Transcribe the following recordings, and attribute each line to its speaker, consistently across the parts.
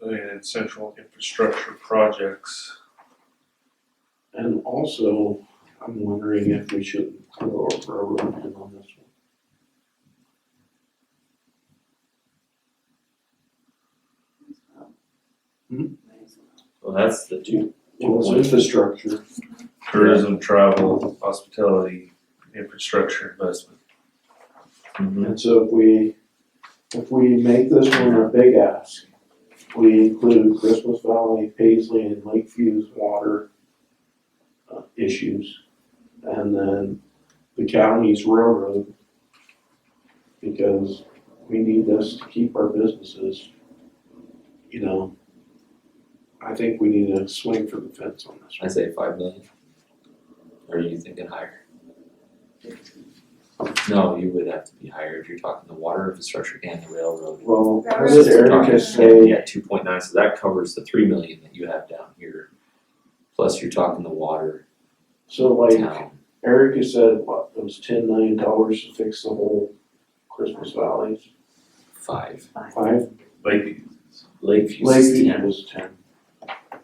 Speaker 1: and central infrastructure projects.
Speaker 2: And also, I'm wondering if we should throw a railroad in on this one.
Speaker 3: Well, that's the two.
Speaker 2: Well, it's infrastructure.
Speaker 1: Tourism, travel, hospitality, infrastructure investment.
Speaker 3: Mm-hmm.
Speaker 2: And so if we, if we make this one a big ask, we include Christmas Valley, Paisley, and Lakeview's water uh, issues, and then the county's railroad, because we need this to keep our businesses, you know. I think we need to swing for the fence on this
Speaker 3: I
Speaker 2: one.
Speaker 3: say five million. Or are you thinking higher? No, you would have to be higher if you're talking the water infrastructure and the railroad.
Speaker 2: Well,
Speaker 4: That
Speaker 2: what
Speaker 4: was-
Speaker 2: did Erica say?
Speaker 3: Yeah, two point nine, so that covers the three million that you have down here. Plus you're talking the water
Speaker 2: So like,
Speaker 3: town.
Speaker 2: Erica said, what, it was ten million dollars to fix the whole Christmas Valley,
Speaker 3: Five.
Speaker 2: five,
Speaker 1: Like,
Speaker 3: Lakeview
Speaker 2: Lakeview
Speaker 3: ten.
Speaker 2: was ten.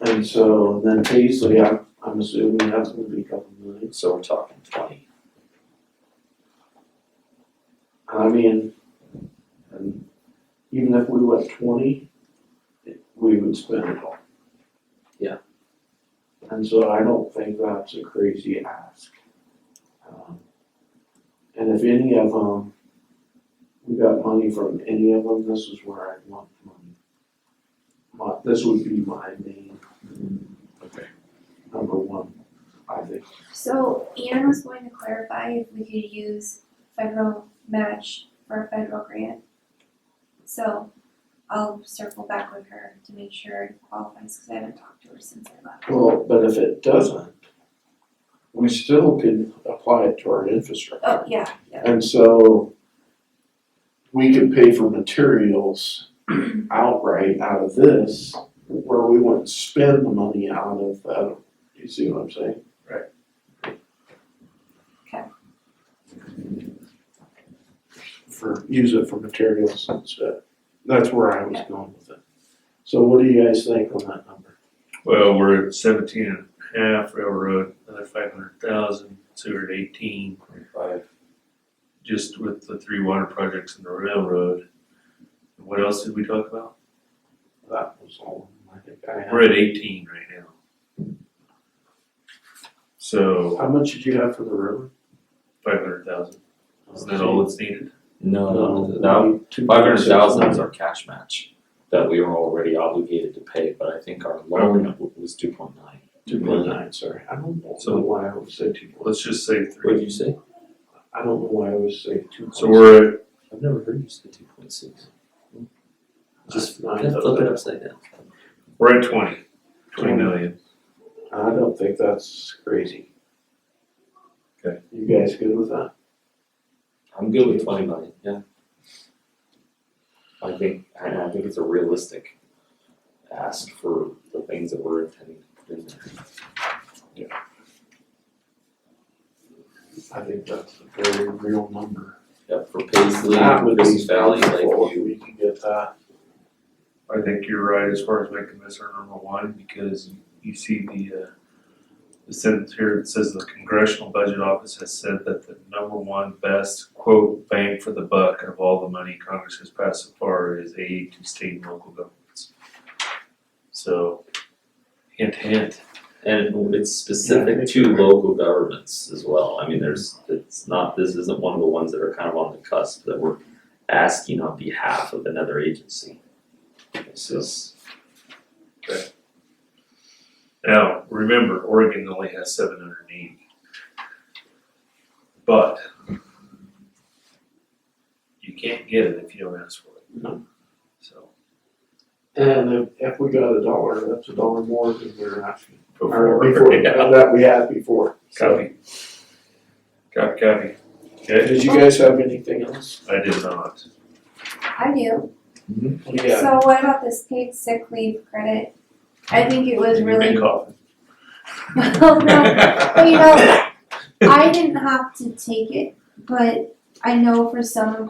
Speaker 2: And so, then Paisley, I'm, I'm assuming that's gonna be a couple million,
Speaker 3: So we're talking twenty.
Speaker 2: I mean, and even if we went twenty, it- we would spend it all.
Speaker 3: Yeah.
Speaker 2: And so I don't think that's a crazy ask. Um, And if any of them, we got money from any of them, this is where I'd want the money. My, this would be my main.
Speaker 1: Okay.
Speaker 2: Number one, I think.
Speaker 4: So Ian was going to clarify if we could use federal match for a federal grant. So I'll circle back with her to make sure it qualifies, cause I haven't talked to her since I left.
Speaker 2: Well, but if it doesn't, we still can apply it to our infrastructure.
Speaker 4: Oh, yeah, yeah,
Speaker 2: And so we could pay for materials outright out of this, where we wouldn't spend the money out of that. You see what I'm saying?
Speaker 4: Okay.
Speaker 2: For, use it for materials instead. That's where I was going with it. So what do you guys think on that number?
Speaker 1: well, we're at seventeen and a half railroad, another five hundred thousand, sewer at eighteen.
Speaker 3: Five.
Speaker 1: just with the three water projects and the railroad. What else did we talk about?
Speaker 2: That was all I think I had.
Speaker 1: We're at eighteen right now. So
Speaker 2: How much did you have for the river?
Speaker 1: five hundred thousand, isn't that all that's needed?
Speaker 3: No,
Speaker 2: No,
Speaker 3: that
Speaker 2: Uh, two
Speaker 3: Five hundred thousand
Speaker 2: point
Speaker 3: is
Speaker 2: six
Speaker 3: our cash match that we were already obligated to pay, but I think our loan w- was two point nine.
Speaker 2: Two point nine, sorry, I don't know
Speaker 1: So-
Speaker 2: why I would say two point,
Speaker 1: Let's just say
Speaker 3: What
Speaker 1: three.
Speaker 3: did you say?
Speaker 2: I don't know why I would say two point.
Speaker 1: So we're at,
Speaker 3: I've never heard you say two point six. Just
Speaker 2: Nine
Speaker 3: flip it
Speaker 2: thousand.
Speaker 3: upside down.
Speaker 1: we're at twenty, twenty million.
Speaker 2: I don't think that's crazy.
Speaker 1: Okay.
Speaker 2: You guys good with that?
Speaker 3: I'm good with twenty million, yeah. I think, I I think it's a realistic ask for the things that we're intending to put in there.
Speaker 2: I think that's a very real number.
Speaker 3: Yeah, for Paisley,
Speaker 2: That would be
Speaker 3: Christmas Valley,
Speaker 2: helpful if
Speaker 3: Lakeview,
Speaker 2: We can get that,
Speaker 1: I think you're right as far as making this our number one, because you see the, uh, the sentence here, it says the Congressional Budget Office has said that the number one best, quote, bang for the buck of all the money Congress has passed so far is aid to state and local governments. So, hint, hint.
Speaker 3: And it's
Speaker 2: Yeah, I
Speaker 3: specific
Speaker 2: think
Speaker 3: to
Speaker 2: you're right.
Speaker 3: local governments as well, I mean, there's, it's not, this isn't one of the ones that are kind of on the cusp that we're asking on behalf of another agency. This is,
Speaker 1: Now, remember, Oregon only has seven hundred and eighty. But you can't get it if you don't ask for it.
Speaker 2: No.
Speaker 1: So.
Speaker 2: and if, if we got a dollar, that's a dollar more than we're asking. Or
Speaker 1: Before,
Speaker 2: before,
Speaker 1: yeah,
Speaker 2: that we had before.
Speaker 1: copy. Copy, copy. Okay,
Speaker 2: Did you guys have anything else?
Speaker 1: I did not.
Speaker 4: I do.
Speaker 2: Yeah.
Speaker 4: So what about this paid sick leave credit? I think it was really,
Speaker 1: Big coffin.
Speaker 4: well, no, But you know, I didn't have to take it, but I know for some